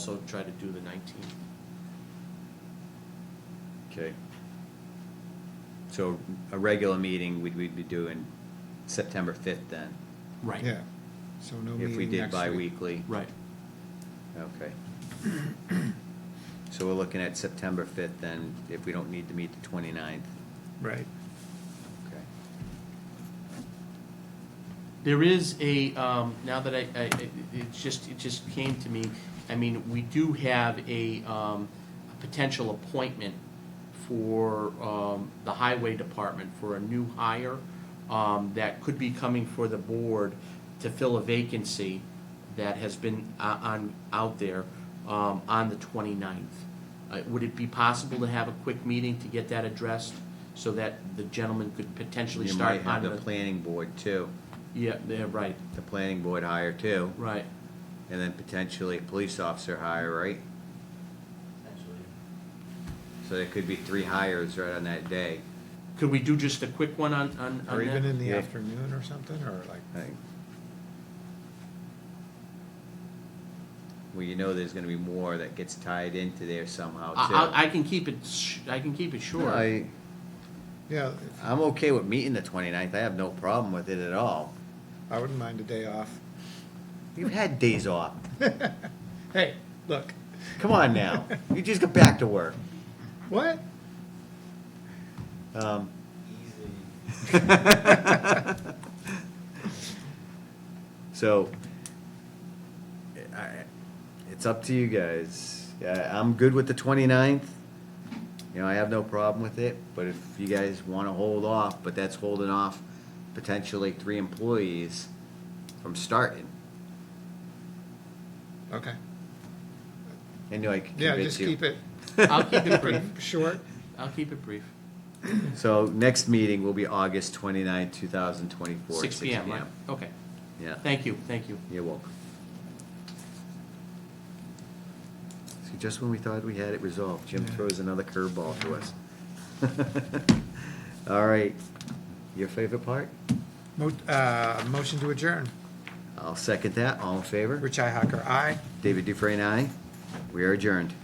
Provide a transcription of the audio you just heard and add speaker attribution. Speaker 1: also try to do the nineteenth.
Speaker 2: Okay. So a regular meeting, we'd, we'd be doing September fifth then,
Speaker 1: Right.
Speaker 3: Yeah, so no
Speaker 2: if we
Speaker 3: meeting
Speaker 2: did
Speaker 3: next week.
Speaker 2: bi-weekly.
Speaker 1: Right.
Speaker 2: Okay. So we're looking at September fifth then, if we don't need to meet the twenty-ninth.
Speaker 3: Right.
Speaker 2: Okay.
Speaker 1: There is a, um, now that I, I, it it just, it just came to me, I mean, we do have a, um, a potential appointment for, um, the highway department for a new hire, um, that could be coming for the board to fill a vacancy that has been o- on, out there, um, on the 29th. Uh, would it be possible to have a quick meeting to get that addressed so that the gentleman could potentially
Speaker 2: You
Speaker 1: start
Speaker 2: might
Speaker 1: on
Speaker 2: have the planning board too,
Speaker 1: Yeah, yeah, right,
Speaker 2: the planning board hire too,
Speaker 1: right.
Speaker 2: and then potentially a police officer hire, right? So there could be three hires right on that day.
Speaker 1: Could we do just a quick one on, on,
Speaker 3: Or
Speaker 1: on
Speaker 3: even
Speaker 1: that?
Speaker 3: in the
Speaker 2: Yeah.
Speaker 3: afternoon or something, or like,
Speaker 2: I think- Well, you know there's gonna be more that gets tied into there somehow too.
Speaker 1: I, I, I can keep it, sh- I can keep it short.
Speaker 2: I,
Speaker 3: yeah,
Speaker 2: I'm okay with meeting the 29th. I have no problem with it at all.
Speaker 3: I wouldn't mind a day off.
Speaker 2: You've had days off.
Speaker 3: Hey, look,
Speaker 2: Come on now. You just got back to work.
Speaker 3: what?
Speaker 2: Um, So, I, it's up to you guys. Uh, I'm good with the 29th. You know, I have no problem with it, but if you guys want to hold off, but that's holding off potentially three employees from starting.
Speaker 3: Okay,
Speaker 2: And I can
Speaker 3: yeah,
Speaker 2: convince
Speaker 3: just
Speaker 2: you.
Speaker 3: keep it
Speaker 1: I'll keep it brief,
Speaker 3: short.
Speaker 1: I'll keep it brief.
Speaker 2: So next meeting will be August 29th, 2024.
Speaker 1: Six P M, right? Okay,
Speaker 2: Yeah.
Speaker 1: thank you, thank you.
Speaker 2: You're welcome. See, just when we thought we had it resolved, Jim
Speaker 3: Yeah.
Speaker 2: throws another curveball to us. All right, your favorite part?
Speaker 3: Mo- uh, motion to adjourn.
Speaker 2: I'll second that, all in favor?
Speaker 3: Rich Ihacker, aye.
Speaker 2: David Dufresne, aye. We are adjourned.